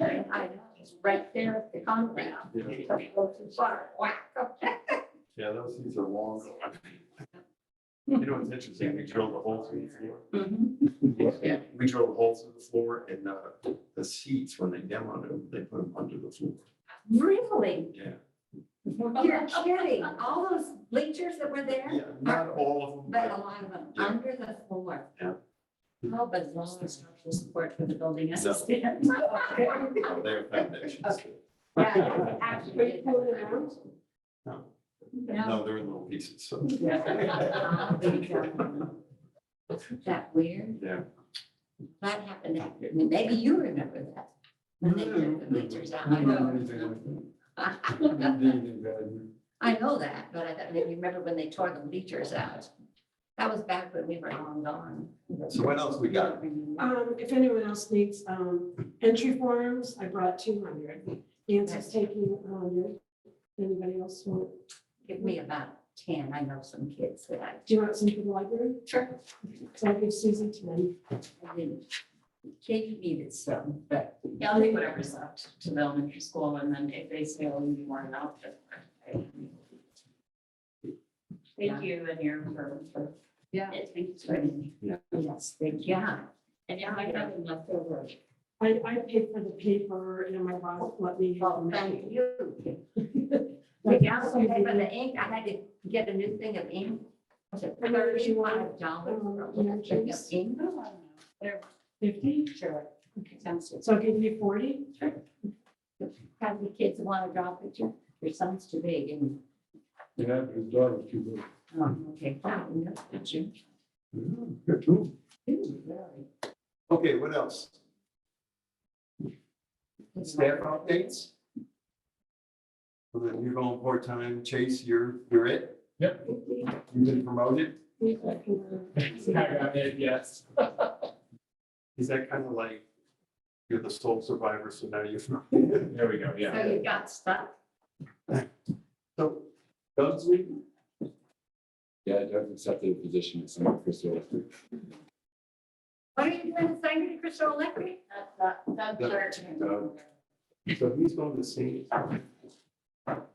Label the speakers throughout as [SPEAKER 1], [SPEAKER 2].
[SPEAKER 1] I, it's right there at the compound.
[SPEAKER 2] Yeah.
[SPEAKER 1] Don't go too far. Whack up.
[SPEAKER 2] Yeah, those things are long. You know, it's interesting, we drilled a hole through the floor.
[SPEAKER 1] Mhm. Yeah.
[SPEAKER 2] We drilled holes through the floor and uh, the seats, when they demoed them, they put them under the floor.
[SPEAKER 1] Really?
[SPEAKER 2] Yeah.
[SPEAKER 1] You're kidding. All those bleachers that were there,
[SPEAKER 2] Yeah, not all of them,
[SPEAKER 1] but a
[SPEAKER 2] but
[SPEAKER 1] lot of them
[SPEAKER 2] Yeah.
[SPEAKER 1] under the floor.
[SPEAKER 2] Yeah.
[SPEAKER 1] How bizarre structural support for the building
[SPEAKER 2] No.
[SPEAKER 1] assistant.
[SPEAKER 2] you know, they have foundations.
[SPEAKER 1] Okay. Yeah, actually.
[SPEAKER 2] No,
[SPEAKER 1] No.
[SPEAKER 2] no, they're in little pieces, so.
[SPEAKER 1] I'll be darned. Isn't That weird,
[SPEAKER 2] Yeah.
[SPEAKER 1] that happened after, me. maybe you remember that. When they took the bleachers out. I know. I know that, but I thought maybe you remember when they tore the bleachers out. That was back when we were long gone.
[SPEAKER 2] So what else we got?
[SPEAKER 3] Um, if anyone else needs, um, entry forms, I brought two hundred. Nancy's taking a hundred. Anybody else want?
[SPEAKER 1] Give me about ten, I know some kids that I
[SPEAKER 3] Do you want some for the library?
[SPEAKER 1] Sure.
[SPEAKER 3] So I'll give Susan ten.
[SPEAKER 1] I didn't. Katie needed some, but. Yeah, I'll take whatever's up to the elementary school and then if they say, oh, you weren't out.
[SPEAKER 4] Thank you and your firm for.
[SPEAKER 1] Yeah.
[SPEAKER 4] Thank you for it.
[SPEAKER 1] Yes, they, yeah.
[SPEAKER 4] And yeah, I have them left over.
[SPEAKER 3] I, I paid for the paper and my boss let me have
[SPEAKER 1] Well,
[SPEAKER 3] them.
[SPEAKER 1] thank you.
[SPEAKER 3] But
[SPEAKER 1] Yeah,
[SPEAKER 3] that's
[SPEAKER 1] so for
[SPEAKER 3] something-
[SPEAKER 1] the ink, I had to get a new thing of ink. Was it
[SPEAKER 3] How much you
[SPEAKER 1] thirty-one dollars for
[SPEAKER 4] Oh,
[SPEAKER 1] a little thing of ink? They're
[SPEAKER 3] Fifty,
[SPEAKER 1] sure, expensive.
[SPEAKER 3] so I'll give you forty.
[SPEAKER 1] Have the kids want to draw a picture? Your son's too big and,
[SPEAKER 2] Yeah, his daughter's too big.
[SPEAKER 1] um, okay, fine, no picture. Ooh, really?
[SPEAKER 2] Okay, what else? Staff updates? And then you're going part-time, Chase, you're, you're it?
[SPEAKER 5] Yep.
[SPEAKER 2] You've been promoted?
[SPEAKER 5] I mean, yes.
[SPEAKER 2] Is that kind of like, you're the sole survivor, so now you're.
[SPEAKER 5] There we go, yeah.
[SPEAKER 1] So you got stuck?
[SPEAKER 2] So, Doug's leaving?
[SPEAKER 6] Yeah, Doug accepted a position at Summit Crystal Electric.
[SPEAKER 1] What are you doing, singing Crystal Electric?
[SPEAKER 4] That's not, that's
[SPEAKER 2] That-
[SPEAKER 4] our
[SPEAKER 2] no. So he's going to see.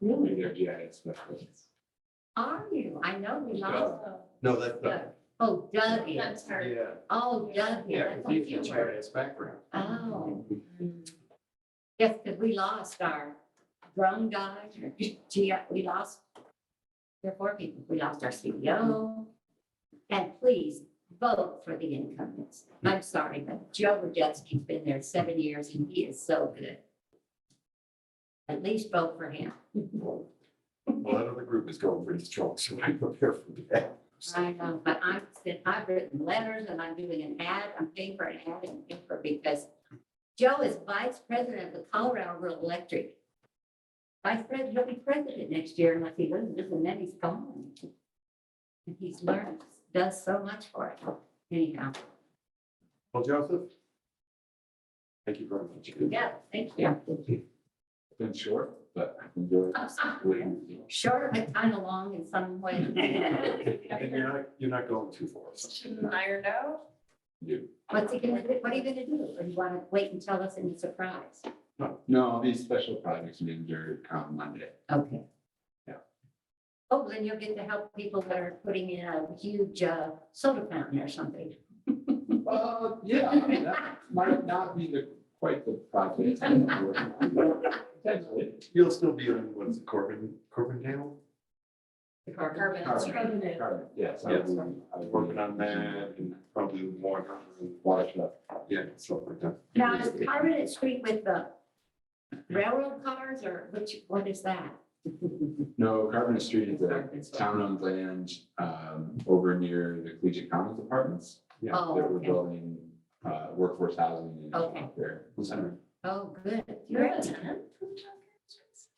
[SPEAKER 6] Really? Their GIS specialist.
[SPEAKER 1] Are you? I know we lost.
[SPEAKER 4] Also,
[SPEAKER 2] No, that's Doug.
[SPEAKER 1] Doug. Oh, Doug is.
[SPEAKER 4] That's her.
[SPEAKER 1] Oh, Doug,
[SPEAKER 2] Yeah,
[SPEAKER 1] yeah, that's
[SPEAKER 2] 'cause
[SPEAKER 1] a
[SPEAKER 2] he's got
[SPEAKER 1] future.
[SPEAKER 2] GIS background.
[SPEAKER 1] Oh. Yes, because we lost our drone guy, or G- we lost there are four people. We lost our CEO. And please vote for the incumbents. I'm sorry, but Joe Rajewski's been there seven years and he is so good. At least vote for him.
[SPEAKER 2] Well, that other group is going pretty strong, so I prepare for that.
[SPEAKER 1] I know, but I've sent, I've written letters and I'm doing an ad, I'm paying for an ad and paying for because Joe is vice president of the Colorado Rural Electric. Vice president, he'll be president next year unless he loses and then he's gone. And he's learned, does so much for it. Anyhow,
[SPEAKER 2] Well, Joseph? Thank you very much.
[SPEAKER 1] yeah, thank you.
[SPEAKER 6] It's Been short, but I enjoyed it.
[SPEAKER 1] Short, but kind of long in some way.
[SPEAKER 2] And you're not, you're not going too far.
[SPEAKER 4] Shouldn't iron out.
[SPEAKER 6] You-
[SPEAKER 1] What's he gonna do? What are you gonna do? Or you wanna wait and tell us in the surprise?
[SPEAKER 6] No, these special projects manager come Monday.
[SPEAKER 1] Okay.
[SPEAKER 6] Yeah.
[SPEAKER 1] Oh, then you'll get to help people that are putting in a huge uh, soda fountain or something.
[SPEAKER 6] Uh, yeah, I mean, that might not be the, quite the project. I'm working on, but Potentially.
[SPEAKER 2] You'll still be on, what's it, Corbin, Corbin Dale?
[SPEAKER 4] Carbon.
[SPEAKER 6] Carbon, carbon, Yes. I
[SPEAKER 2] Yes.
[SPEAKER 6] was- I was
[SPEAKER 2] Working on that and probably more,
[SPEAKER 6] Water stuff.
[SPEAKER 2] yeah, stuff like that.
[SPEAKER 1] Now, is Carbonate Street with the railroad cars or which, what is that?
[SPEAKER 6] No, Carbon Street is a town owned land, um, over near the collegiate commons apartments.
[SPEAKER 2] Yeah,
[SPEAKER 1] Oh,
[SPEAKER 6] That we're
[SPEAKER 1] okay.
[SPEAKER 6] building, uh, workforce housing. and
[SPEAKER 1] Okay.
[SPEAKER 6] out There.
[SPEAKER 2] Center.
[SPEAKER 1] Oh, good.
[SPEAKER 4] You're
[SPEAKER 1] You're,
[SPEAKER 4] a tenant.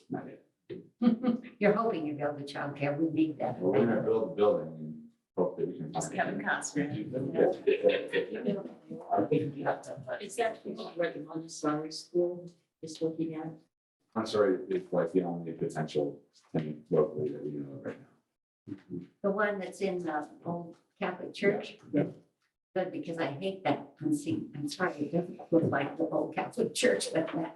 [SPEAKER 6] Not yet.
[SPEAKER 1] you're hoping you build the childcare. We need that.
[SPEAKER 6] Well, We're gonna build the building and hope that we can.
[SPEAKER 4] Just Kevin Costner.
[SPEAKER 6] Yeah. I think we have to-
[SPEAKER 4] Is that where the Montessori school is looking at?
[SPEAKER 6] I'm sorry, it's like the only potential thing locally that we know of right now.
[SPEAKER 1] The one that's in the old Catholic church.
[SPEAKER 6] Yeah,
[SPEAKER 1] Good, because I hate that conceit. I'm sorry, it doesn't look like the old Catholic church, but uh, that